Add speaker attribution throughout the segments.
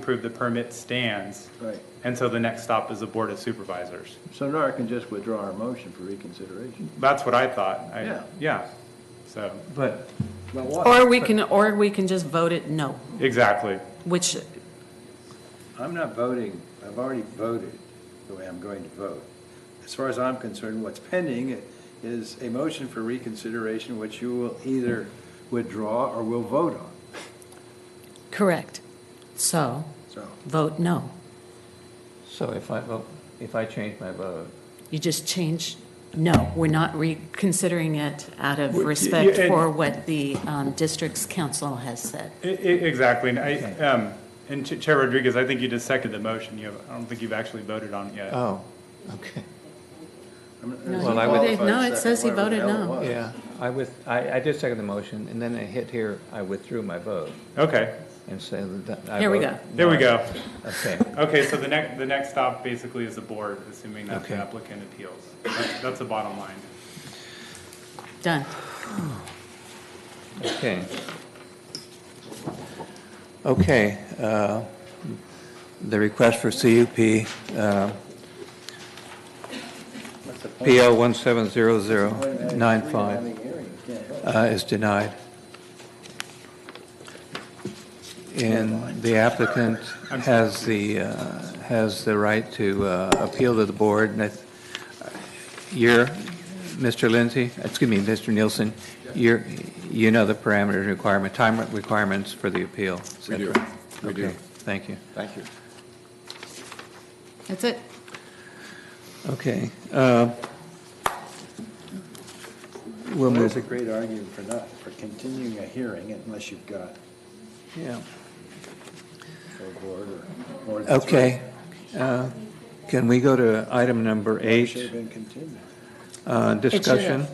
Speaker 1: approve the permit stands.
Speaker 2: Right.
Speaker 1: And so the next stop is the Board of Supervisors.
Speaker 2: So Nora can just withdraw her motion for reconsideration.
Speaker 1: That's what I thought. I-
Speaker 2: Yeah.
Speaker 1: Yeah, so,
Speaker 3: But
Speaker 2: But what?
Speaker 4: Or we can, or we can just vote it no,
Speaker 1: exactly.
Speaker 4: which,
Speaker 2: I'm not voting, I've already voted the way I'm going to vote. As far as I'm concerned, what's pending is a motion for reconsideration, which you will either withdraw or will vote on,
Speaker 4: correct. So,
Speaker 2: so.
Speaker 4: vote no.
Speaker 3: so if I vote, if I change my vote,
Speaker 4: You just change, no, we're not reconsidering it out of
Speaker 1: Well, y-
Speaker 4: respect
Speaker 1: yeah, and-
Speaker 4: for what the um, district's council has said.
Speaker 1: I- I- Exactly, and I, um, and Ch- Chair Rodriguez, I think you just seconded the motion. You, have- I don't think you've actually voted on it yet.
Speaker 3: oh, okay,
Speaker 2: I'm- it's
Speaker 4: No,
Speaker 3: he
Speaker 2: a
Speaker 3: voted-
Speaker 2: qualified
Speaker 4: no, it
Speaker 2: second,
Speaker 4: says he
Speaker 2: whatever the
Speaker 4: voted
Speaker 2: hell it
Speaker 4: no.
Speaker 2: was.
Speaker 3: yeah. I with, I, I did second the motion, and then I hit here, I withdrew my vote,
Speaker 1: Okay,
Speaker 3: and so that I.
Speaker 4: Here we
Speaker 3: vote-
Speaker 1: there we go.
Speaker 3: Okay,
Speaker 1: Okay, so the next, the next stop basically is the board, assuming that the
Speaker 3: Okay.
Speaker 1: applicant appeals. That's- That's the bottom line.
Speaker 4: Done.
Speaker 3: okay. Okay, uh, the request for CUP, uh,
Speaker 2: What's the point?
Speaker 3: PL
Speaker 2: Wait a minute,
Speaker 3: 170095,
Speaker 2: having a hearing, you can't help it.
Speaker 3: uh, is denied. And the applicant has the, uh, has the right to uh, appeal to the board. And if you're, Mr. Lindsay, excuse me, Mr. Nielsen, you're, you know the parameters requirement, time requirements for the appeal. et
Speaker 5: We do.
Speaker 3: cetera.
Speaker 5: We do.
Speaker 3: Okay, Thank you.
Speaker 5: Thank you.
Speaker 4: That's it.
Speaker 3: Okay. uh, We'll
Speaker 2: There's
Speaker 3: move,
Speaker 2: a great argument for not, for continuing a hearing unless you've got
Speaker 3: yeah.
Speaker 2: a board or more than three.
Speaker 3: Okay. Uh, Can we go to item number
Speaker 2: Should have
Speaker 3: eight,
Speaker 2: been continued.
Speaker 3: uh, discussion?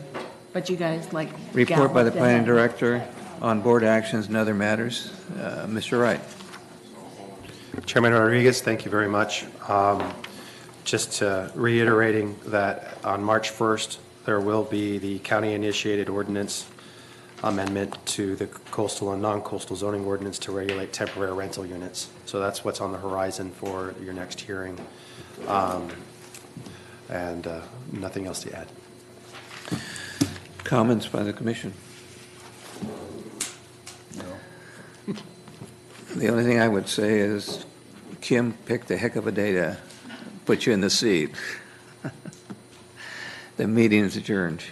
Speaker 4: But you guys like.
Speaker 3: Report by the
Speaker 4: galloped
Speaker 3: planning
Speaker 4: ahead.
Speaker 3: director on board actions and other matters. Uh, Mr. Wright?
Speaker 6: Chairman Rodriguez, thank you very much. Um, Just uh, reiterating that on March 1st, there will be the county-initiated ordinance amendment to the coastal and non-coastal zoning ordinance to regulate temporary rental units. So that's what's on the horizon for your next hearing. Um, And uh, nothing else to add.
Speaker 3: Comments by the commission? The only thing I would say is Kim picked a heck of a day to put you in the seat. The meeting is adjourned.